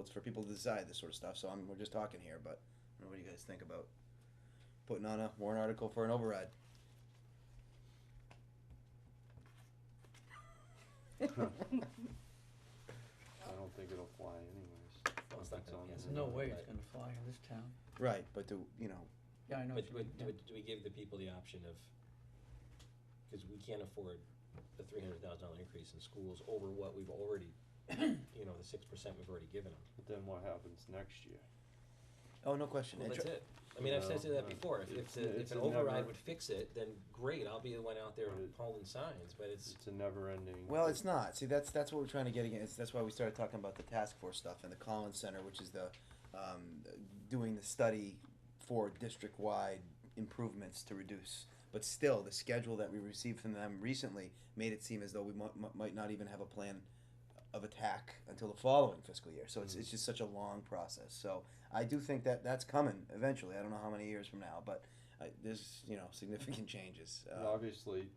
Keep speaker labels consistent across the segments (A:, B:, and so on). A: it's for people to decide this sort of stuff, so I'm, we're just talking here, but I don't know what you guys think about putting on a warrant article for an override.
B: I don't think it'll fly anyways.
C: Well, it's not
B: It's
C: gonna-
B: on
C: yeah, it's
B: the
C: not
D: No
B: road.
C: gonna
D: way
C: fly.
D: it's gonna fly in this town.
A: Right, but do, you know,
D: Yeah, I know.
C: But
D: it's-
C: do, it- do,
D: yeah.
C: it- do we give the people the option of, because we can't afford the three hundred thousand dollar increase in schools over what we've already, you know, the six percent we've already given them.
B: But then what happens next year?
A: oh, no question.
C: Well,
A: And
C: that's
A: tr-
C: it. I mean, I've said
B: No,
C: that
B: no,
C: before, if, if,
B: it's-
C: the- if
B: it's
C: an
B: a never-
C: override would fix it, then great, I'll be the one out there
B: Right.
C: hauling signs, but it's,
B: It's a never ending.
A: Well, it's not. See, that's that's what we're trying to get against. That's why we started talking about the task force stuff and the Collins Center, which is the um, doing the study for district wide improvements to reduce. But still, the schedule that we received from them recently made it seem as though we mu- mu- might not even have a plan of attack until the following fiscal year. So it's, it's just such a long process. So I do think that that's coming eventually. I don't know how many years from now, but uh, there's you know significant changes.
B: And
A: Uh,
B: obviously,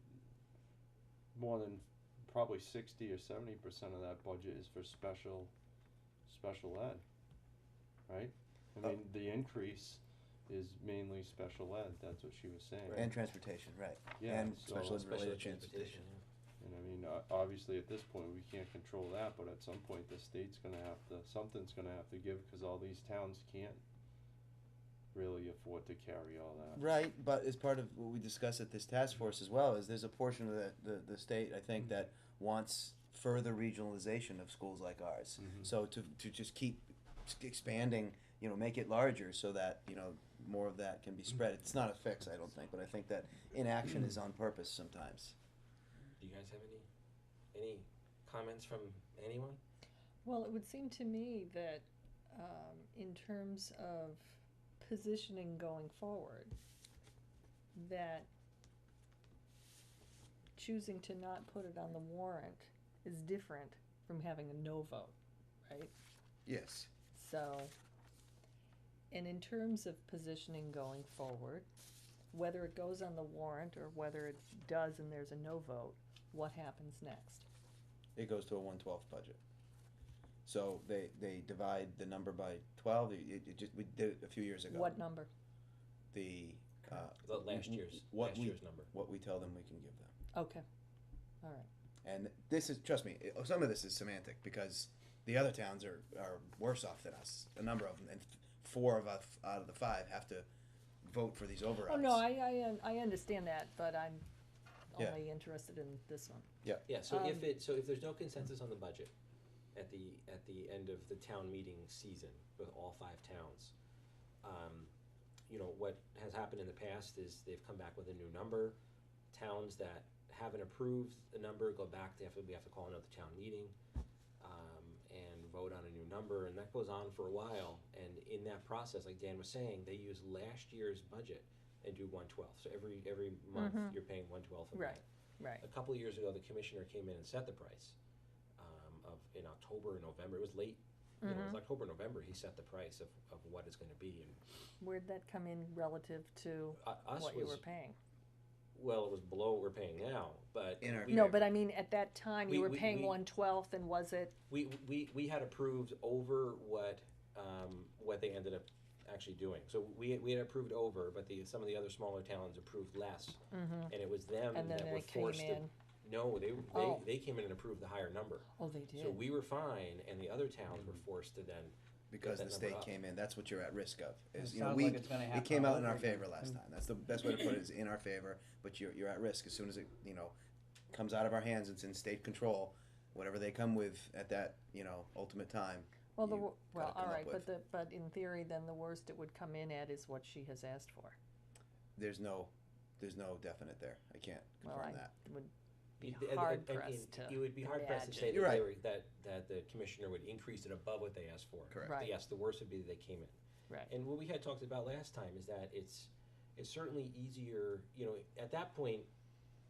B: more than probably sixty or seventy percent of that budget is for special, special ed, right? I
A: Uh,
B: mean, the increase is mainly special ed, that's what she was saying.
A: and transportation, right?
B: Yeah,
A: and
B: so-
A: special ed
C: especially
A: related
C: with
A: transportation.
C: transportation.
B: And I mean, o- obviously, at this point, we can't control that, but at some point, the state's gonna have to, something's gonna have to give, cause all these towns can't really afford to carry all that.
A: Right, but as part of what we discussed at this task force as well, is there's a portion of the, the, the state, I
C: Mm-hmm.
A: think, that wants further regionalization of schools like ours.
C: Mm-hmm.
B: Mhm.
A: So to, to just keep s- expanding, you know, make it larger so that, you know, more of that can be spread. It's not a fix, I don't think, but I think that inaction is on purpose sometimes.
C: Do you guys have any, any comments from anyone?
E: Well, it would seem to me that um, in terms of positioning going forward, that choosing to not put it on the warrant is different from having a no vote, right?
A: Yes.
E: So, and in terms of positioning going forward, whether it goes on the warrant or whether it does and there's a no vote, what happens next?
A: It goes to a one twelfth budget. So they, they divide the number by twelve, it, it- it just, we did it a few years ago.
E: What number?
A: The, uh,
C: The last
A: w-
C: year's,
A: what
C: last
A: we-
C: year's number.
A: what we tell them we can give them.
E: Okay, all right.
A: And this is, trust me, it- some of this is semantic because the other towns are, are worse off than us. A number of them, and four of us out of the five have to vote for these overrides.
E: Oh, no, I, I, un- I understand that, but I'm
A: Yeah.
E: only interested in this one.
C: Yeah, so if
E: Um,
C: it, so if there's no consensus on the budget at the, at the end of the town meeting season with all five towns, um, you know, what has happened in the past is they've come back with a new number. Towns that haven't approved the number go back, they have to, we have to call another town meeting, um, and vote on a new number, and that goes on for a while. And in that process, like Dan was saying, they use last year's budget and do one twelfth. So every, every month,
E: Mhm.
C: you're paying one twelfth of that.
E: Right, right.
C: A couple of years ago, the commissioner came in and set the price um, of in October and November. It was late. You
E: Mm-hmm.
C: know, it was October, November. He set the price of, of what it's going to be, and
E: Where'd that come in relative to
C: uh, us
E: what you
C: was
E: were paying?
C: well, it was below what we're paying now. But
A: In our-
C: we,
E: No, but I mean, at that time,
C: We-
E: you were
C: we-
E: paying
C: we-
E: one-twelfth, and was it,
C: we, we we had approved over what um, what they ended up actually doing. So we we had approved over, but the some of the other smaller towns approved less, and it was them
E: Mm-hmm. and then
C: that were
E: it came
C: forced
E: in?
C: to. No, they they,
E: Oh.
C: they came in and approved the higher number.
E: Oh, they
C: So
E: did. Mm-hmm.
C: we were fine, and the other towns were forced to then.
A: because
C: Get
A: the
C: that
A: state
C: number up.
A: came in, that's what you're at risk of. Is
D: It
A: you know
D: sounds
A: we
D: like it's gonna
A: it
D: happen
A: came
D: all
A: out in our
D: over again.
A: favor last time. That's the best way to put it is in our favor, but you're you're at risk as soon as it you know comes out of our hands. It's in state control. Whatever they come with at that you know ultimate time.
E: Well, the,
A: you
E: wo- well,
A: gotta come
E: all
A: up
E: right,
A: with.
E: but the, but in theory, then the worst it would come in at is what she has asked for.
A: There's no there's no definite there. I can't
E: Well,
A: confirm
E: I
A: that.
E: would be
C: It- it-
E: hard
C: it- it-
E: pressed to
C: It would be hard pressed to say that
A: You're right.
C: they were, that, that the commissioner would increase it above what they asked for.
A: Correct.
E: Right.
C: Yes, the worst would be that they came in.
E: Right.
C: And what we had talked about last time is that it's, it's certainly easier, you know, at that point,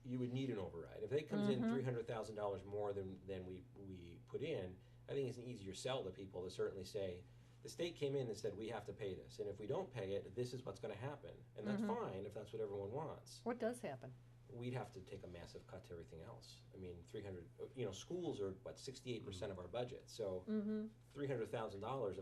C: you would need an override. If they comes in
E: Mm-hmm.
C: three hundred thousand dollars more than, than we, we put in, I think it's an easier sell to people to certainly say, the state came in and said, we have to pay this,
E: Mm-hmm.
C: and if we don't pay it, this is what's gonna happen. And that's fine if that's what everyone wants.
E: What does happen?
C: we'd have to take a massive cut to everything else. I mean, three hundred, you know, schools are what, sixty-eight percent of our budget, so
E: Mm-hmm.
C: three hundred thousand dollars